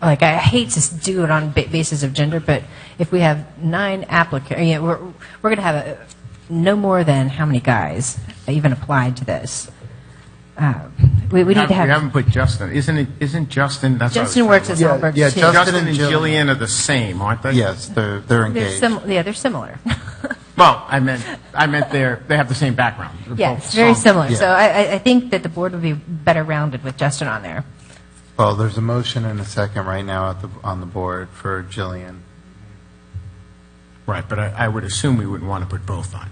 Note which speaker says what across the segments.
Speaker 1: like I hate to s- do it on ba- basis of gender, but if we have nine applicants, yeah, we're we're going to have a, no more than how many guys even applied to this. Uh, we we need to
Speaker 2: We
Speaker 1: have
Speaker 2: haven't put Justin, isn't it, isn't Justin, that's what I was
Speaker 1: Justin works at
Speaker 2: thinking.
Speaker 3: Yeah,
Speaker 1: Salberg
Speaker 3: yeah,
Speaker 1: too.
Speaker 3: Justin
Speaker 2: Justin
Speaker 3: and
Speaker 2: and
Speaker 3: Jillian.
Speaker 2: Jillian are the same, aren't they?
Speaker 3: Yes, they're, they're
Speaker 1: they're
Speaker 3: engaged.
Speaker 1: sim- yeah, they're similar.
Speaker 2: Well, I meant, I meant they're, they have the same background. They're both
Speaker 1: yes, very
Speaker 2: some-
Speaker 1: similar.
Speaker 3: yeah.
Speaker 1: So I, I- I think that the board would be better rounded with Justin on there.
Speaker 3: Well, there's a motion and a second right now at the, on the board for Jillian.
Speaker 2: Right, but I, I would assume we wouldn't want to put both on.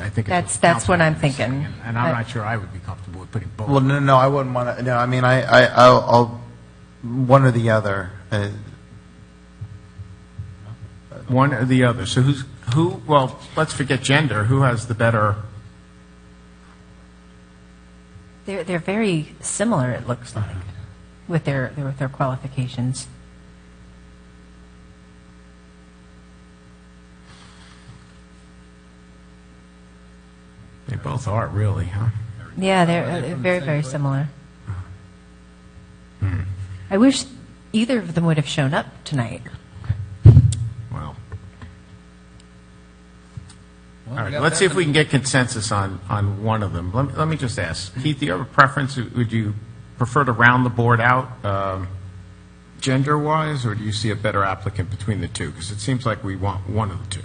Speaker 2: I
Speaker 1: That's-
Speaker 2: think it's what
Speaker 1: that's
Speaker 2: council
Speaker 1: what I'm
Speaker 2: members are
Speaker 1: thinking.
Speaker 2: And I'm
Speaker 1: I-
Speaker 2: not sure I would be comfortable with putting both.
Speaker 3: Well, no, no, I wouldn't want to, no, I mean, I, I, I'll, I'll- one or the other. uh,
Speaker 2: One or the other. So who's, who, well, let's forget gender. Who has the better,
Speaker 1: They're they're very similar. It looks like with their with their qualifications.
Speaker 2: they both are really, huh?
Speaker 1: Yeah, they're, uh, they're very, very similar. I wish either of them would have shown up tonight.
Speaker 2: Well. All right, let's see if we can get consensus on, on one of them. Let, me- let me just ask, Keith, do you have a preference? Would you prefer to round the board out, um, gender-wise, or do you see a better applicant between the two? Because it seems like we want one of the two.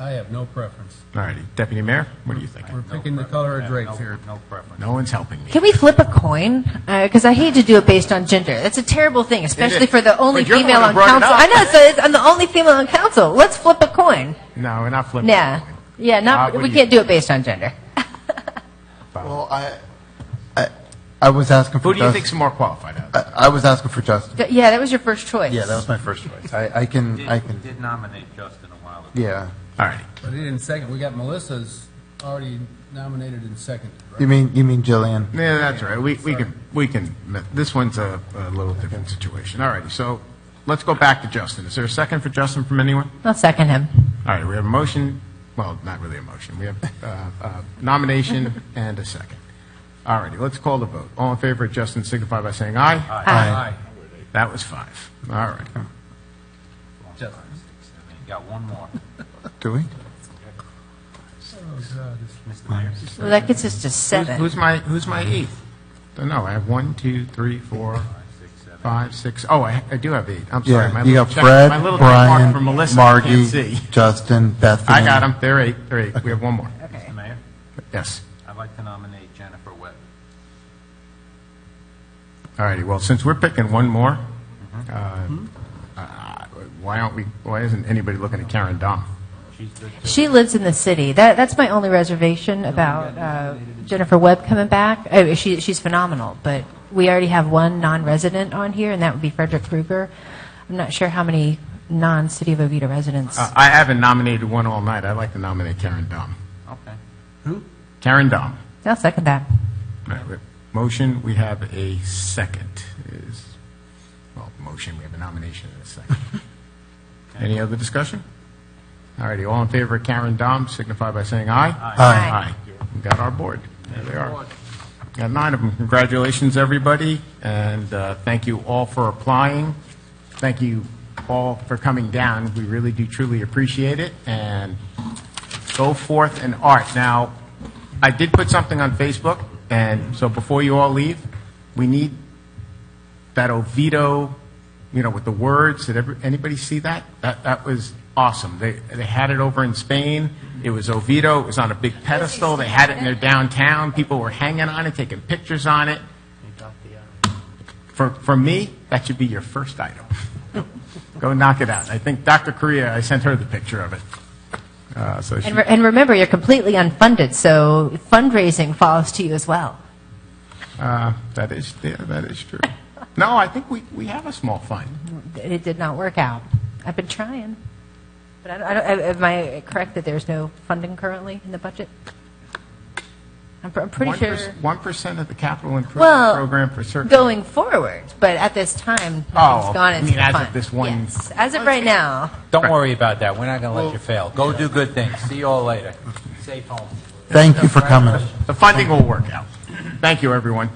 Speaker 4: I have no preference.
Speaker 2: All righty, Deputy Mayor, what are you thinking?
Speaker 4: We're picking the color of drapes
Speaker 3: no-
Speaker 4: here.
Speaker 3: No preference.
Speaker 2: No one's helping me.
Speaker 1: Can we flip a coin? Because I hate to do it based on gender. That's a terrible thing, especially for the only
Speaker 2: But you're the
Speaker 1: female
Speaker 2: one
Speaker 1: on
Speaker 2: who brought it
Speaker 1: council.
Speaker 2: up.
Speaker 1: I know, so it's, I'm the only female on council. Let's flip a coin.
Speaker 2: No, we're not flipping.
Speaker 1: Yeah, yeah. Not
Speaker 2: Uh, what
Speaker 1: we
Speaker 2: do you-
Speaker 1: can't do it based on gender.
Speaker 3: Well, I, I, I was asking for.
Speaker 2: Who do you
Speaker 3: Jus-
Speaker 2: think's more qualified out of
Speaker 3: I I was asking for Justin.
Speaker 1: Th- Yeah, that was your first choice.
Speaker 3: Yeah, that was my first choice. I, I can, I can,
Speaker 5: Did nominate Justin a while ago.
Speaker 3: yeah.
Speaker 2: All righty.
Speaker 4: But it in second, we got Melissa's already nominated and seconded, right?
Speaker 3: You mean, you mean Jillian?
Speaker 2: Yeah, that's all right. We, we can, we can, this one's a, a little different situation. All righty, so let's go back to Justin. Is there a second for Justin from anyone?
Speaker 1: I'll second him.
Speaker 2: All right, we have a motion, well, not really a motion. We have uh, a nomination and a second. All righty, let's call the vote. All in favor of Justin signify by saying aye.
Speaker 4: Aye.
Speaker 2: That was five. All right.
Speaker 4: Justin.
Speaker 5: I mean, you Got one more.
Speaker 3: Do we?
Speaker 5: Mr. Mayor?
Speaker 1: Well, that gets us to
Speaker 2: Who's-
Speaker 1: seven.
Speaker 2: Who's my, who's my eighth? Don't know, I have one, two, three, four, five, six, oh, I I do have eight. I'm sorry.
Speaker 3: Yeah,
Speaker 2: My
Speaker 3: you
Speaker 2: little
Speaker 3: got
Speaker 2: check-
Speaker 3: Fred,
Speaker 2: My little check mark
Speaker 3: Brian,
Speaker 2: from Melissa, I can't
Speaker 3: Margie,
Speaker 2: see.
Speaker 3: Justin, Bethany.
Speaker 2: I got them. They're eight. They're eight. We have one more.
Speaker 5: Mr. Mayor,
Speaker 2: Yes.
Speaker 5: I'd like to nominate Jennifer Webb.
Speaker 2: All righty. Well, since we're picking one more, uh, uh, why aren't we? Why isn't anybody looking at Karen Dom?
Speaker 5: She's good too.
Speaker 1: She lives in the city. That, that's my only reservation about uh, Jennifer Webb coming back. Oh, she, she's phenomenal, but we already have one non-resident on here, and that would be Frederick Krueger. I'm not sure how many non-City of Oviedo residents.
Speaker 2: Uh, I haven't nominated one all night. I'd like to nominate Karen Dom.
Speaker 5: Okay.
Speaker 2: Karen Dom.
Speaker 1: I'll second that.
Speaker 2: All right, we have Motion. We have a second. Is well, motion. We have a nomination and a second. Any other discussion? All righty. All in favor of Karen Dom, signify by saying aye.
Speaker 1: Aye.
Speaker 2: We got our board. There they are. Got nine of them. Congratulations, everybody, and uh, thank you all for applying. Thank you all for coming down. We really do truly appreciate it, and go forth and art. Now, I did put something on Facebook, and so before you all leave, we need that Oviedo, you know, with the words. Did every, anybody see that? That that was awesome. They they had it over in Spain. It was Oviedo. It was on a big pedestal. They had it in their downtown. People were hanging on it, taking pictures on it. For for me, that should be your first item. Go knock it out. I think Dr. Korea. I sent her the picture of it. Uh, so she,
Speaker 1: And, re- and remember, you're completely unfunded, so fundraising falls to you as well.
Speaker 2: uh, that is yeah, that is true. No, I think we, we have a small fund.
Speaker 1: It did not work out. I've been trying, but I don't, I don't, am I correct that there's no funding currently in the budget? I'm, pr- I'm pretty
Speaker 2: One
Speaker 1: sure.
Speaker 2: per- One percent of the capital improvement
Speaker 1: well,
Speaker 2: program for certain.
Speaker 1: going forward, but at this time,
Speaker 2: Oh,
Speaker 1: nothing's gone
Speaker 2: you
Speaker 1: into
Speaker 2: mean
Speaker 1: the
Speaker 2: as of
Speaker 1: fund.
Speaker 2: this one-
Speaker 1: Yes, as of right now.
Speaker 5: Don't worry about that. We're not going to let you fail. Go do good things. See you all later. Safe home.
Speaker 3: Thank you for coming.
Speaker 2: The funding will work out. Thank you, everyone.